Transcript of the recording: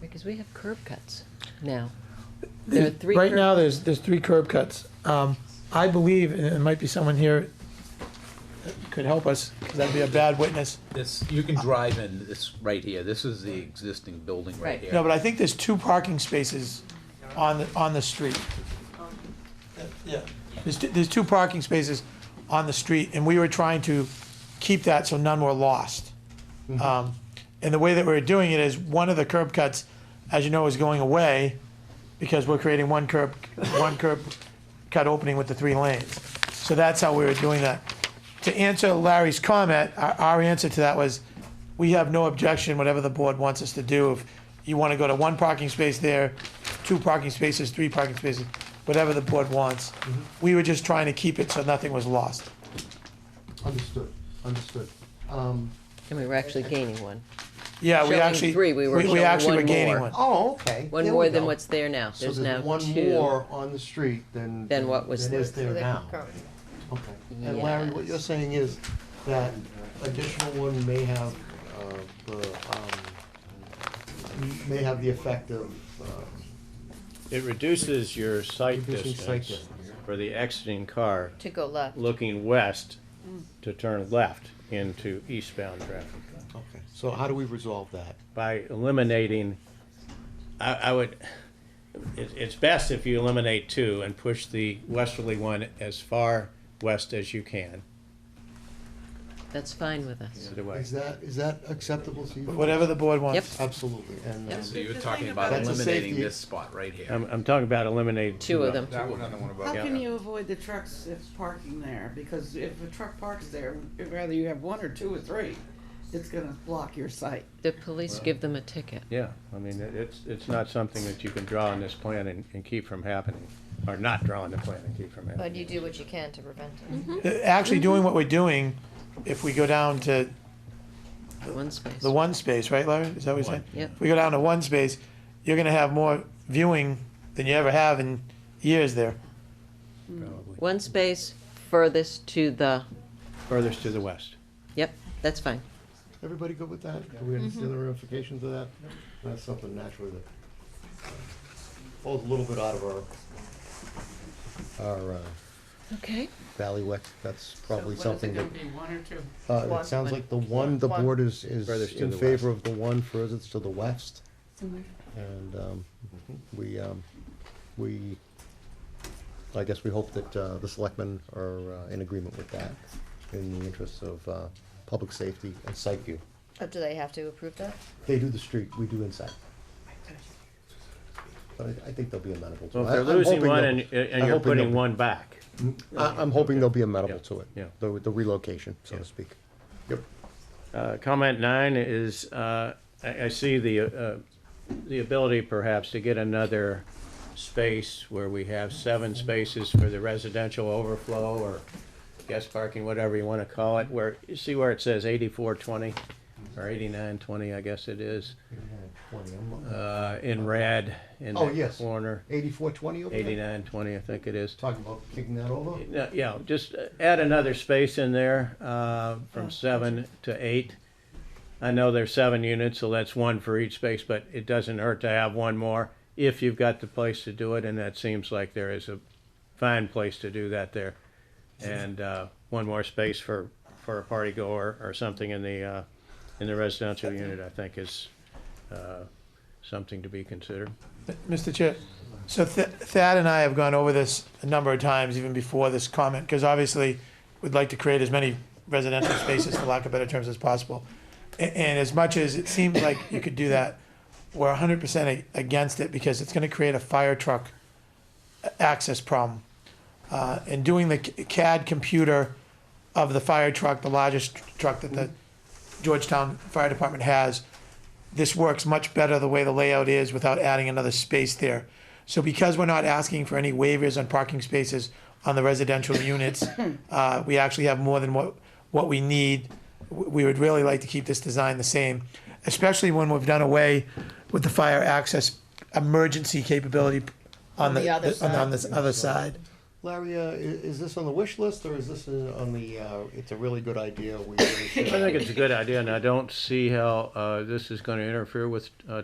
Because we have curb cuts now. There are three. Right curb- now, there's, there's three curb cuts. Um, I believe, and it might be someone here that could help us, 'cause that'd be a bad witness. This, you can drive in, this right here, this is the existing building Right. right here. No, but I think there's two parking spaces on, the on the street. Yeah. There's, t- there's two parking spaces on the street, and we were trying to keep that so none were lost. Um, And the way that we were doing it is, one of the curb cuts, as you know, is going away, because we're creating one curb, one curb cut opening with the three lanes. So that's how we were doing that. To answer Larry's comment, our, our answer to that was, we have no objection, whatever the board wants us to do. If you want to go to one parking space there, two parking spaces, three parking spaces, whatever the board wants. We were just trying to keep it so nothing was lost. Understood, understood. Um, And we were actually gaining one. Yeah, we Showing actually, three, we were showing actually one were gaining more. one. oh, okay. One there more we than go. what's there now. So There's now there's one two. more on the street than. Than what was Than is there. there now. Okay. And Larry, what you're Yes. saying is that additional one may have, uh, the, um, may have the effect of, uh, It reduces your sight Reducing sight distance distance. for the exiting car To go left. looking west to turn left into eastbound traffic. okay, so how do we resolve that? By eliminating, I, I would, it, it's best if you eliminate two and push the westerly one as far west as you can That's fine with us. to the Is west. that, is that acceptable to you? Whatever the board Yep. wants. Absolutely, and, Yep. um, So you're talking about That's a eliminating safety- this spot right here. I'm, I'm talking about eliminating Two of them. That one, another one How Yeah. can you avoid the trucks if parking there? Because if a truck parks there, whether you have one or two or three, it's gonna block your sight. The police give them a ticket. Yeah, I mean, it- it's, it's not something that you can draw on this plan and, and keep from happening, or not draw on the plan and keep from But you happening. do what you can to prevent it. Mm-hmm. Uh, Actually doing what we're doing, if we go down to One space. the one space, right, Larry? Is that what you're saying? Yep. If we go down to one space, you're gonna have more viewing than you ever have in years there. probably. One space furthest to the. Furthest to the west. Yep, that's fine. everybody good with that? Do we understand the ramifications of that? That's something naturally that uh, falls a little bit out of our, our, uh, Okay. Valley Wick, that's probably something that, one or two? uh, One. it sounds like the one, the One. board is, is Furthest to in the favor of the one furthest to the west. And, um, we, um, we, I guess we hope that, uh, the selectmen are uh, in agreement with that in the interests of, uh, public safety and sight view. But do they have to approve that? They do the street, we do inside. But I, I think they'll be amenable to it. Well, if I- they're I'm losing hoping one they'll- and, and I'm you're hoping putting they'll- one back, I, I'm hoping they'll be amenable to it. Yeah. The, the relocation, so to Yeah. speak. Yep. Uh, Comment nine is, uh, I I see the, uh, the ability perhaps to get another space where we have seven spaces for the residential overflow or guest parking, whatever you want to call it, where, you see where it says eighty-four twenty or eighty-nine twenty, I guess it is, uh, in red in Oh, that yes. corner. Eighty-four twenty over there? Eighty-nine twenty, I think it is. Talking about kicking that over? No, Yeah, just add another space in there, uh, from seven to eight. I know there's seven units, so that's one for each space, but it doesn't hurt to have one more if you've got the place to do it, and that seems like there is a fine place to do that there. And, uh, one more space for, for a party goer or something in the, uh, in the residential unit, I think is, uh, something to be considered. Mr. Chair, so Th- Thad and I have gone over this a number of times, even before this comment, because obviously, we'd like to create as many residential spaces, for lack of better terms, as possible. A- And as much as it seems like you could do that, we're hundred percent against it, because it's gonna create a fire truck a- access problem. Uh, and doing the c- CAD computer of the fire truck, the largest truck that the Georgetown Fire Department has, this works much better the way the layout is without adding another space there. So because we're not asking for any waivers on parking spaces on the residential units, uh, we actually have more than what, what we need. W- We would really like to keep this design the same, especially when we've done away with the fire access emergency capability on the, other on the- on this other side. Larry, uh, i- is this on the wish list or is this uh, on the, uh, it's a really good idea, we really should? I think it's a good idea, and I don't see how, uh, this is gonna interfere with, uh,